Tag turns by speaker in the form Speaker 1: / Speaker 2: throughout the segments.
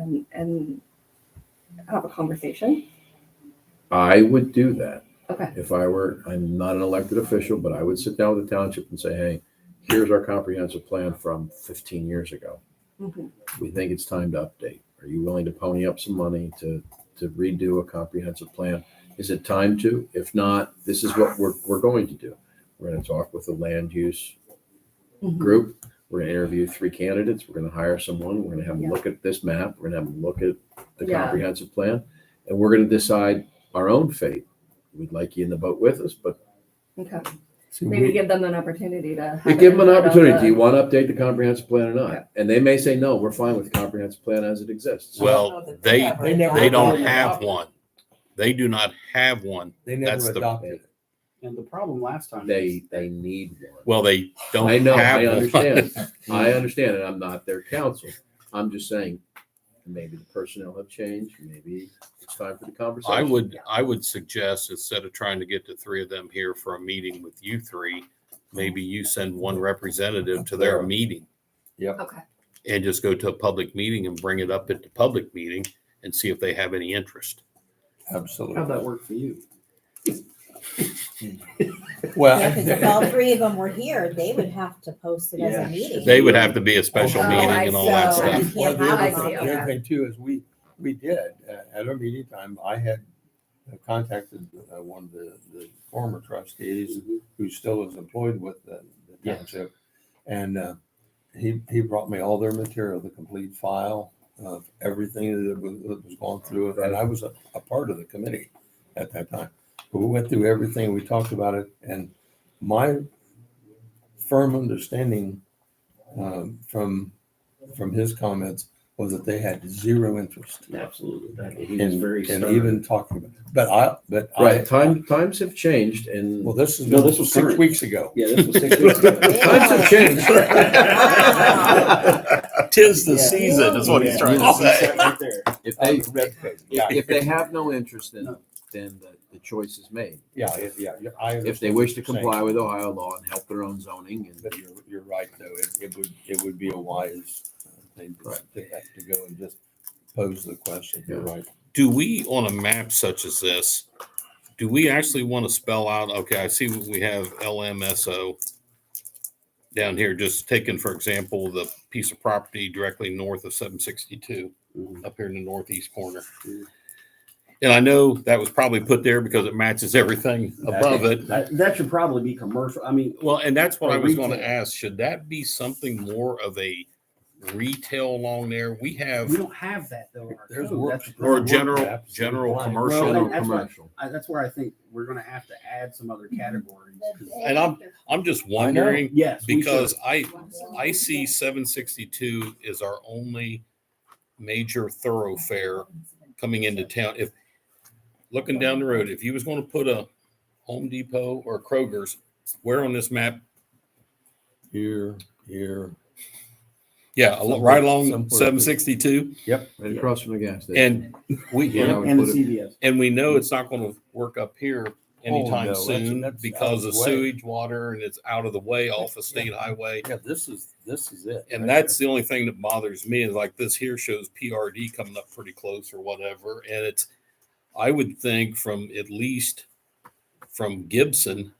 Speaker 1: and, and have a conversation.
Speaker 2: I would do that
Speaker 1: Okay,
Speaker 2: if I were, I'm not an elected official, but I would sit down with the township and say, hey, here's our comprehensive plan from fifteen years ago.
Speaker 1: Mhm.
Speaker 2: We think it's time to update. Are you willing to pony up some money to, to redo a comprehensive plan? Is it time to? If not, this is what we're, we're going to do. We're gonna talk with the land use
Speaker 1: Mhm.
Speaker 2: group. We're gonna interview three candidates. We're gonna hire someone. We're gonna have them
Speaker 1: Yeah.
Speaker 2: look at this map. We're gonna have them look at the
Speaker 1: Yeah.
Speaker 2: comprehensive plan. And we're gonna decide our own fate. We'd like you in the boat with us, but
Speaker 1: okay.
Speaker 3: See,
Speaker 1: Maybe
Speaker 3: we-
Speaker 1: give them an opportunity to. have
Speaker 2: we give them an
Speaker 1: input on
Speaker 2: opportunity.
Speaker 1: the-
Speaker 2: Do you want to update the comprehensive plan or
Speaker 1: Yeah.
Speaker 2: not? And they may say, no, we're fine with the comprehensive plan as it exists.
Speaker 4: Well, they,
Speaker 3: They never
Speaker 4: they don't
Speaker 3: adopted it.
Speaker 4: have one. They do not have one.
Speaker 3: They
Speaker 4: that's
Speaker 3: never
Speaker 4: the-
Speaker 3: adopted it.
Speaker 5: And the problem last time.
Speaker 2: They, they need one.
Speaker 4: Well, they don't
Speaker 2: I know,
Speaker 4: have
Speaker 2: I
Speaker 4: one.
Speaker 2: understand. I understand, and I'm not their counsel. I'm just saying, maybe the personnel have changed, maybe it's time for the conversation.
Speaker 4: I would, I would suggest instead of trying to get the three of them here for a meeting with you three, maybe you send one representative to their
Speaker 2: Yeah.
Speaker 4: meeting
Speaker 1: Okay,
Speaker 4: and just go to a public meeting and bring it up at the public meeting and see if they have any interest.
Speaker 5: How'd
Speaker 3: Absolutely.
Speaker 5: that work for you?
Speaker 6: Yeah, because if all
Speaker 3: Well,
Speaker 6: three of them were here, they would have to post it as
Speaker 5: Yeah.
Speaker 6: a meeting.
Speaker 4: They would have to be a special
Speaker 1: Oh,
Speaker 4: meeting
Speaker 1: I
Speaker 4: and all that
Speaker 1: see.
Speaker 4: stuff.
Speaker 3: well, the
Speaker 1: I see,
Speaker 3: other thing- the
Speaker 1: okay.
Speaker 3: other thing too is we, we did, uh, at our meeting time, I had contacted uh, one of the, the former trustees who still is employed with the the
Speaker 5: Yes.
Speaker 3: township. And uh, he, he brought me all their material, the complete file of everything that was, that was going through. it. And I was a, a part of the committee at that time. But we went through everything, we talked about it, and my firm understanding um, from, from his comments was that they had zero interest
Speaker 5: Absolutely.
Speaker 3: in, in even talking about it. But I, but I,
Speaker 2: Right, time, times have changed and.
Speaker 3: well, this is,
Speaker 5: No, this was
Speaker 3: six
Speaker 5: current.
Speaker 3: weeks ago.
Speaker 5: Yeah, this was six weeks ago.
Speaker 2: Times have changed.
Speaker 3: Tis the
Speaker 6: season is what he's
Speaker 5: Yeah, you see that right there.
Speaker 2: If
Speaker 3: Um, Yeah,
Speaker 2: they, if if they have no interest in, it, then the, the choice is made.
Speaker 3: yeah, yeah. yeah, I
Speaker 2: If they
Speaker 3: understand
Speaker 2: wish to
Speaker 3: what you're saying.
Speaker 2: comply with Ohio law and help their own zoning and
Speaker 3: But you're, you're right, though. It, it would, it would be a wise uh, thing to
Speaker 2: Right.
Speaker 3: to have to go and just pose the question. You're right.
Speaker 4: do we on a map such as this do we actually want to spell out okay i see we have lmso down here just taking for example the piece of property directly north of 762
Speaker 5: Mhm.
Speaker 4: up here in the northeast corner
Speaker 5: Mhm.
Speaker 4: and i know that was probably put there because it matches everything above it
Speaker 5: That, that should probably be commercial. I mean,
Speaker 4: well and that's what
Speaker 5: Or
Speaker 4: i was going to
Speaker 5: retail.
Speaker 4: ask should that be something more of a retail along there we
Speaker 5: we
Speaker 4: have
Speaker 5: don't have that though. in our
Speaker 3: There's
Speaker 5: code.
Speaker 3: work-
Speaker 5: That's-
Speaker 4: or
Speaker 3: Work
Speaker 4: general
Speaker 3: maps.
Speaker 4: general
Speaker 3: Well,
Speaker 4: commercial
Speaker 5: Well,
Speaker 2: general
Speaker 5: and that's why-
Speaker 2: commercial.
Speaker 5: I- That's where I think we're gonna have to add some other categories. 'cause-
Speaker 4: and i'm i'm just wondering
Speaker 5: Yes. we should.
Speaker 4: because I, I see seven sixty-two is our only major thoroughfare coming into town. If, looking down the road, if you was gonna put a Home Depot or Kroger's, where on this map?
Speaker 3: Here, here.
Speaker 4: Yeah, al- right
Speaker 3: Somewhere
Speaker 4: along
Speaker 3: up there.
Speaker 4: seven sixty-two,
Speaker 2: right across from the gas station.
Speaker 4: and we,
Speaker 2: Yeah.
Speaker 5: And the CVS.
Speaker 4: and we know it's not gonna work up here
Speaker 3: Oh, no,
Speaker 4: anytime
Speaker 3: that's-
Speaker 4: soon
Speaker 3: that's
Speaker 4: because
Speaker 3: out
Speaker 4: of
Speaker 3: of the way.
Speaker 4: sewage water and it's out of the way off of state highway.
Speaker 3: Yeah, this is, this is it.
Speaker 4: And that's the only thing that bothers me is like this here shows PRD coming up pretty close or whatever. And it's, I would think from at least from Gibson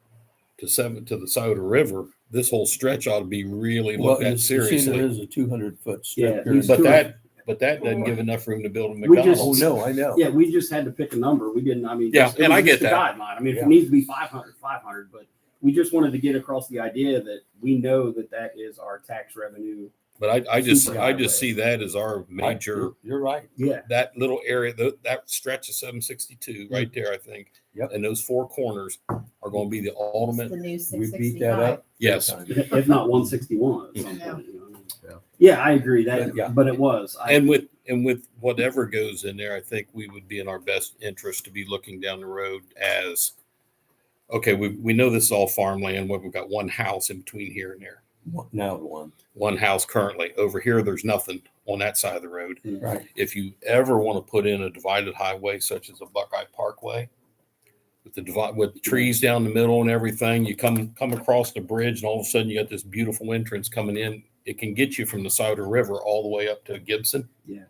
Speaker 4: to seven to the Souda River, this whole stretch ought to be really
Speaker 3: Well,
Speaker 4: looked
Speaker 3: you
Speaker 4: at
Speaker 3: see, there
Speaker 4: seriously.
Speaker 3: is a two hundred foot
Speaker 5: Yeah,
Speaker 3: strip. here.
Speaker 5: these
Speaker 4: But
Speaker 5: two-
Speaker 4: that, but that doesn't give enough room to build a
Speaker 5: We just-
Speaker 3: Oh,
Speaker 4: McDonald's.
Speaker 3: no, I know.
Speaker 5: Yeah, we just had to pick a number. We didn't, I mean.
Speaker 4: Yeah,
Speaker 5: just- it
Speaker 4: and
Speaker 5: was
Speaker 4: I get
Speaker 5: just a
Speaker 4: that.
Speaker 5: Guideline. I mean, if
Speaker 3: Yeah.
Speaker 5: it needs to be 500, 500, but we just wanted to get across the idea that we know that that is our tax revenue.
Speaker 4: But I, I just,
Speaker 5: Super
Speaker 4: I just
Speaker 5: highway.
Speaker 4: see that as our major,
Speaker 3: You're- You're right.
Speaker 5: Yeah.
Speaker 4: that little area, tho- that stretch of seven sixty-two right there, I think.
Speaker 3: Yep.
Speaker 4: And those four corners are going to be the ultimate,
Speaker 6: The new
Speaker 3: We
Speaker 6: six
Speaker 3: beat that
Speaker 6: sixty-five.
Speaker 3: up.
Speaker 4: yes.
Speaker 5: If not 161 at some point. you know what I mean?
Speaker 2: Yeah.
Speaker 5: Yeah, I agree that,
Speaker 3: But, yeah.
Speaker 5: but it was. I-
Speaker 4: And with, and with whatever goes in there, I think we would be in our best interest to be looking down the road as, okay, we, we know this is all farmland, but we've got one house in between here and there.
Speaker 3: Now one.
Speaker 4: One house currently. Over here, there's nothing on that side of the road.
Speaker 3: Right.
Speaker 4: If you ever want to put in a divided highway such as a Buckeye Parkway, with the divide, with trees down the middle and everything, you come, come across the bridge and all of a sudden you got this beautiful entrance coming in. It can get you from the Souda River all the way up to Gibson.
Speaker 5: Yeah.